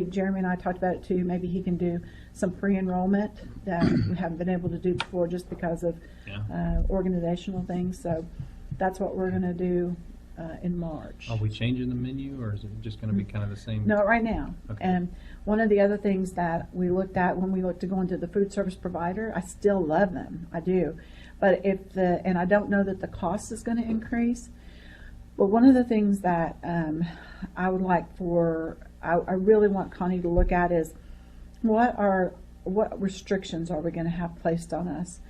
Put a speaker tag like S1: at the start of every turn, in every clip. S1: think Jeremy and I talked about it too, maybe he can do some pre-enrollment that we haven't been able to do before just because of
S2: Yeah.
S1: uh, organizational things, so that's what we're gonna do uh, in March.
S2: Are we changing the menu, or is it just gonna be kind of the same?
S1: No, right now.
S2: Okay.
S1: And one of the other things that we looked at when we looked to go into the food service provider, I still love them, I do. But if the, and I don't know that the cost is gonna increase, but one of the things that, um, I would like for, I, I really want Connie to look at is, what are, what restrictions are we gonna have placed on us?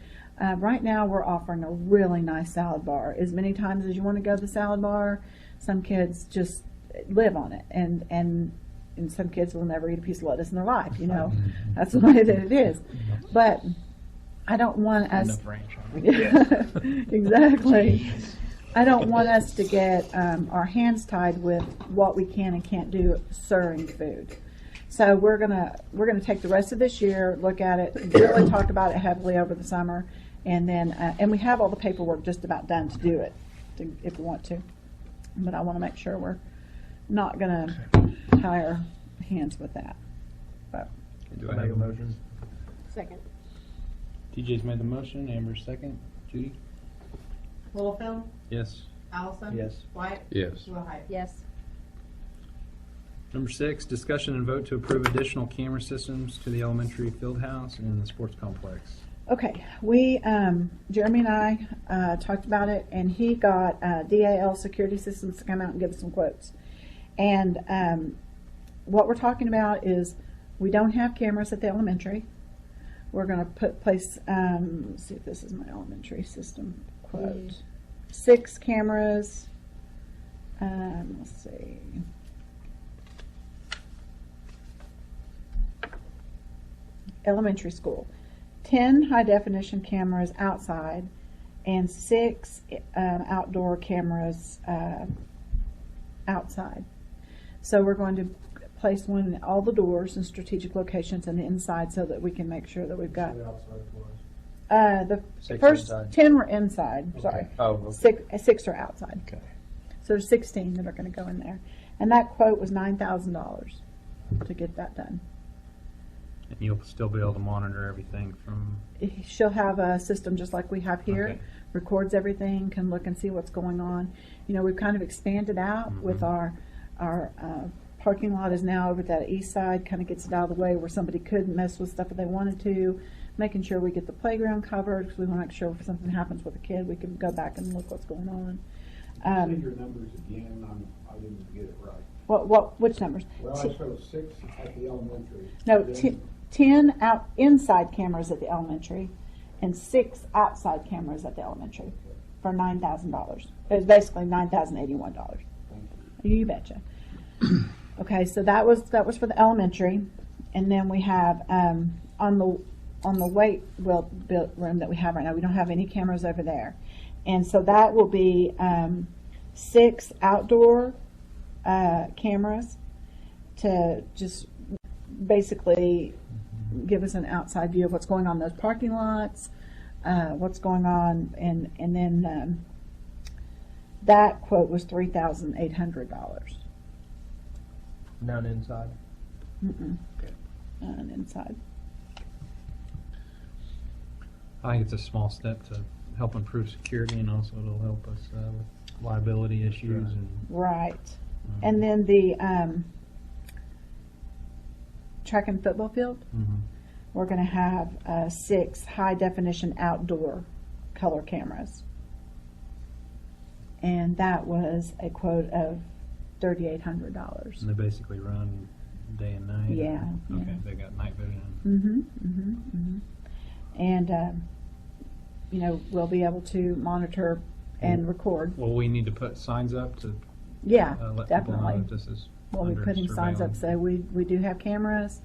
S1: Uh, right now, we're offering a really nice salad bar. As many times as you wanna go to the salad bar, some kids just live on it and, and, and some kids will never eat a piece of lettuce in their life, you know? That's the way that it is. But I don't want
S2: On
S1: us.
S2: the branch. aren't we?
S1: Yeah, exactly. I don't want us to get um, our hands tied with what we can and can't do serving food. So we're gonna, we're gonna take the rest of this year, look at it, really talk about it heavily over the summer, and then, uh, and we have all the paperwork just about done to do it, to- if we want to. But I want to make sure we're not gonna tie our hands with that. But
S2: Do I
S3: Make a
S2: have a-
S3: motion?
S4: Second.
S2: TJ's made the motion, Amber's second. Judy?
S5: Littlefield,
S2: Yes.
S5: Allison.
S3: Yes.
S5: White,
S6: Yes.
S5: Willhite.
S4: Yes.
S2: Number six, discussion and vote to approve additional camera systems to the elementary field house and the sports complex.
S1: Okay, we, um, Jeremy and I, uh, talked about it and he got, uh, DAL Security Systems to come out and give us some quotes. And, um, what we're talking about is we don't have cameras at the elementary. We're gonna put, place, um, let's see if this is my elementary system
S4: Mm.
S1: quote. Six cameras, um, let's see. Elementary school, ten high definition cameras outside and six, um, outdoor cameras, uh, outside. So we're going to place one in all the doors and strategic locations and inside so that we can make sure that we've got,
S3: The outside floors.
S1: uh, the
S3: Six
S1: first
S3: inside.
S1: ten were inside, sorry.
S3: Okay. Oh, okay.
S1: Six, uh, six are outside.
S3: Okay.
S1: So there's sixteen that are gonna go in there. And that quote was nine thousand dollars to get that done.
S2: And you'll still be able to monitor everything from,
S1: She'll have a system just like we have here,
S2: Okay.
S1: records everything, can look and see what's going on. You know, we've kind of expanded out with
S2: Mhm.
S1: our, our uh, parking lot is now over that east side, kind of gets it out of the way where somebody could mess with stuff if they wanted to, making sure we get the playground covered, because we want to make sure if something happens with a kid, we can go back and look what's going on.
S7: Say
S1: Um,
S7: your numbers again, I'm, I didn't get it right.
S1: What, what, which numbers?
S7: Well,
S1: Ti-
S7: I showed six at the elementary.
S1: No,
S7: then
S1: ti- ten out, inside cameras at the elementary and six outside cameras at the elementary for nine thousand dollars. It was basically nine thousand eighty-one dollars.
S7: Thank you.
S1: You betcha. Okay, so that was, that was for the elementary. And then we have, um, on the, on the weight well, built room that we have right now, we don't have any cameras over there. And so that will be, um, six outdoor, uh, cameras to just basically give us an outside view of what's going on in those parking lots, uh, what's going on, and, and then, um, that quote was three thousand eight hundred dollars.
S3: None inside.
S1: Mm-mm.
S3: Okay.
S1: And inside.
S2: I think it's a small step to help improve security and also it'll help us uh, with liability issues
S7: right.
S2: and.
S1: Right.
S2: um,
S1: And then the, um, track and football field,
S2: mhm.
S1: we're gonna have, uh, six high definition outdoor color cameras. And that was a quote of thirty-eight hundred dollars.
S2: And they basically run day and night? or-
S1: Yeah, yeah.
S2: Okay, they got night vision.
S1: Mm-hmm, mm-hmm, mm-hmm. And, um, you know, we'll be able to monitor and record.
S2: Well, we need to put signs up to
S1: Yeah,
S2: Mm. uh, let people know
S1: definitely.
S2: that this is
S1: Well, we
S2: under
S1: put in signs up,
S2: surveillance.
S1: say, we, we do have cameras,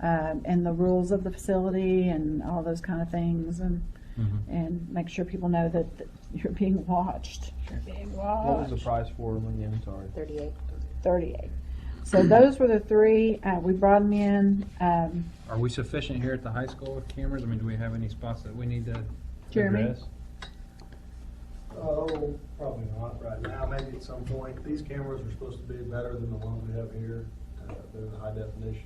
S1: um, and the rules of the facility and all those kind of things and,
S2: Mhm.
S1: and make sure people know that that you're being watched. You're being watched.
S3: What was the price for them again? Sorry.
S4: Thirty-eight.
S1: 38. So those were the three. Uh, we brought them in. Um,
S2: Are we sufficient here at the high school with cameras? I mean, do we have any spots that we need to
S1: Jeremy?
S2: address?
S3: Oh, probably not right now, maybe at some point. These cameras are supposed to be better than the ones we have here. Uh, They're the high definition